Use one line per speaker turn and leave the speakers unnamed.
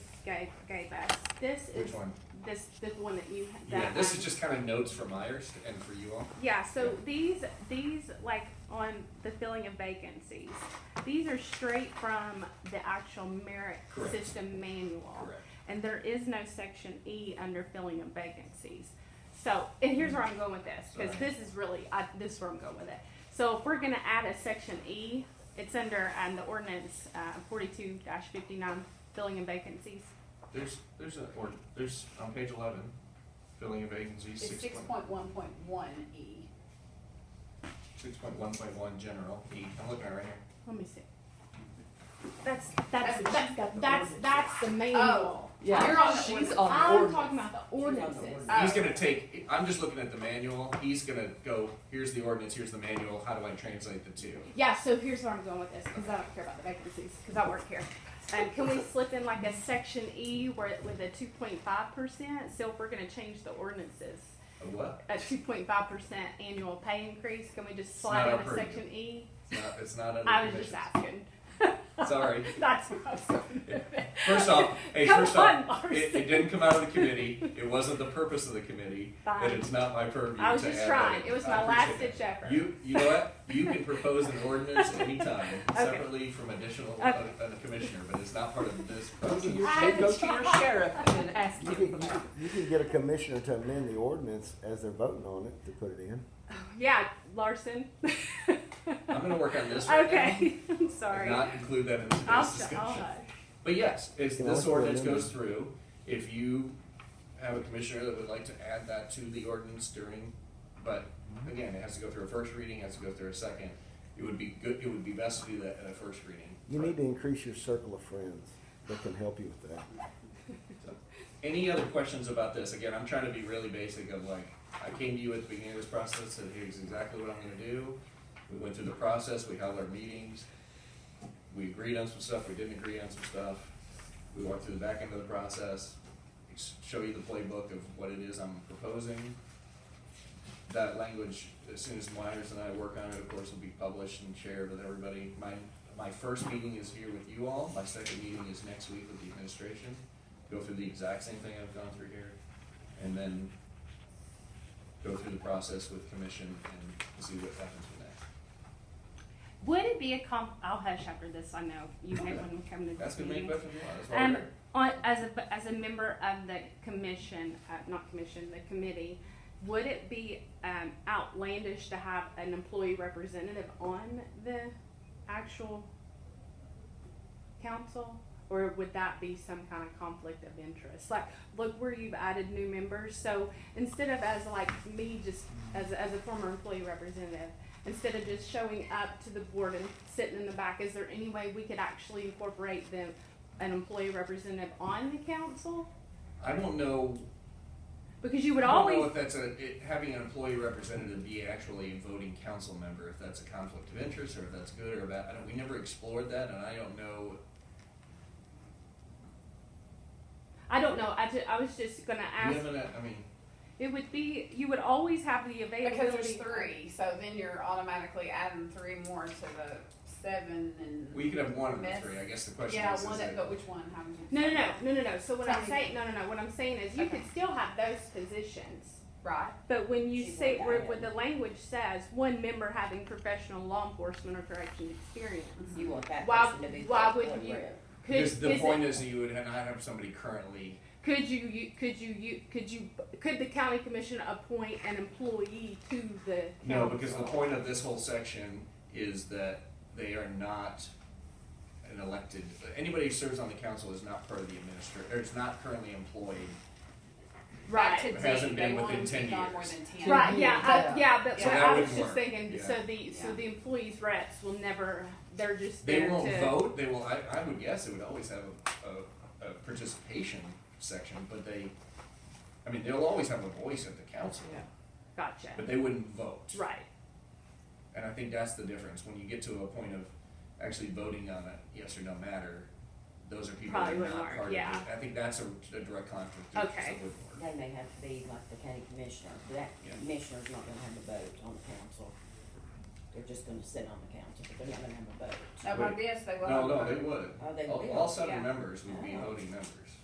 gave, gave us. This
Which
is,
one?
this, the one that you, that
Yeah, this
one.
is just kind of notes for Myers and for you all.
Yeah, so these, these, like, on the filling of vacancies, these are straight from the actual merit
Correct.
system manual.
Correct.
And there is no section E under filling of vacancies. So, and here's where I'm going with this, because
Alright.
this is really, I, this is where I'm going with it. So if we're gonna add a section E, it's under, um, the ordinance, uh, forty-two fifty-nine, filling of vacancies.
There's, there's a, or, there's, on page eleven, filling of vacancies,
It's
six
six
point,
point one point one E.
Six point one point one general E. I'm looking at it right here.
Let me see. That's,
That's
that's,
what she's
that's,
got, the
that's,
ordinance.
that's the Oh, manual.
Yeah,
You're on the
she's
ordinance.
on the
I'm
ordinance.
talking about the ordinances.
Oh.
He's gonna take. I'm just looking at the manual. He's gonna go. Here's the ordinance. Here's the manual. How do I translate the two?
Oh, Yeah, so here's where I'm going with this, because I don't care about the vacancies, because I work here. Um, can we slip in like a section E where, with a two point five percent, so if we're gonna change the ordinances,
A what?
a two point five percent annual pay increase, can we just
It's
slide
not
in
up
a
for
section E?
It's not. It's not under
I was just
conditions.
asking.
Sorry.
That's what I was going
Yeah.
with it.
First off, hey,
Come
first
on,
off, it,
Larson.
it didn't come out of the committee. It wasn't the purpose of the committee,
Fine.
and it's not my purview.
I was
to
just
add
trying.
that.
It was
I
my last
appreciate
ditch
it.
effort.
You, you know what? You can propose an ordinance anytime,
Okay.
separately from additional
Okay.
uh, uh, commissioner, but it's not part of this process.
I go to your sheriff and ask
You
him
can,
for that.
you can get a commissioner to amend the ordinance as they're voting on it to put it in.
Yeah, Larson.
I'm gonna work on this. right now
Okay, I'm
And
sorry.
not include that in today's
I'll, sh-
discussion.
I'll hush.
But yes, as
Can
this
also
ordinance
amend
goes through, if you have a commissioner that would like to add that to the ordinance during, but again, it has to go through a first reading, it has to go through a second. It would be good, it would be best to do that at a first reading.
You need to increase your circle of friends that can help you with that.
Any other questions about this? Again, I'm trying to be really basic of like, I came to you at the beginning of this process, said here's exactly what I'm gonna do. We went through the process, we held our meetings, we agreed on some stuff, we didn't agree on some stuff. We walked through the back end of the process, ex- show you the playbook of what it is I'm proposing. That language, as soon as Myers and I work on it, of course, will be published and shared with everybody. My, my first meeting is here with you all, my second meeting is next week with the administration go through the exact same thing I've gone through here, and then go through the process with commission and see what happens from there.
Would it be a comp? I'll hush after this. I know you hate when we come to
That's
this
the main
meeting.
question you want, that's why we're
Um,
here.
on, as a as a member of the commission, uh, not commission, the committee, would it be um, outlandish to have an employee representative on the actual council? Or would that be some kind of conflict of interest? Like, look where you've added new members. So instead of as like me just as, as a former employee representative, instead of just showing up to the board and sitting in the back, is there any way we could actually incorporate them, an employee representative on the council?
I don't know,
Because you
I
would
don't know
always,
if that's a, it, having an employee representative be actually a voting council member, if that's a conflict of interest, or if that's good or bad, I don't, we never explored that, and I don't know.
I don't know, I ju- I was just gonna
We
ask,
haven't, uh, I mean,
it would be, you would always have the availability.
Because there's three, so then you're automatically adding three more to the seven and.
we could have one of the
Miss-
three, I guess the question
Yeah,
is,
one,
is
that-
it,
but which one? How many?
No, no, no, no, no, no, so what I'm
Sorry.
saying, no, no, no, what I'm saying is you could
Okay.
still have those positions.
Right,
But when you
She
say,
won't
where,
add
where
it.
the language says, one member having professional law enforcement or corrections experience.
Mm-hmm.
You want that
Why-
person to be.
why
the
would
one
you-
rep.
Could,
because the
is it-
point is that you would not have somebody currently
Could you, you, could you, you, could you, could the county commission appoint an employee to the?
No,
council?
because the point of this whole section is that they are not an elected, anybody who serves on the council is not part of the administr, or is not currently employed.
back
Right,
to
It
D,
hasn't
they
been
want
within
to
10
be on more
years.
than ten.
right, yeah,
Yeah.
I, yeah, but
So
what
that
I was
wouldn't
just
work.
thinking, so
Yeah.
the, so
Yeah.
the employees reps will never, they're just
They
there
won't
to.
vote, they will, I, I would guess they would always have a, a, a participation section, but they, I mean, they'll always have a voice at the council,
Gotcha,
but they wouldn't vote.
right,
And I think that's the difference, when you get to a point of actually voting on a yes or no matter, those are people that are
Probably wouldn't
not
work,
part of it.
yeah.
I think that's a, a direct conflict. that
Okay.
wouldn't work.
They may have to be like the county commissioner, but that
Yeah.
commissioner's not gonna have a vote on the council. They're just gonna sit on the council, but they're not gonna have a vote.
At my desk, they will.
No,
have
no,
a
they
vote.
would.
Oh, they
All-
will.
All seven
Yeah.
members would be
Oh.
voting members.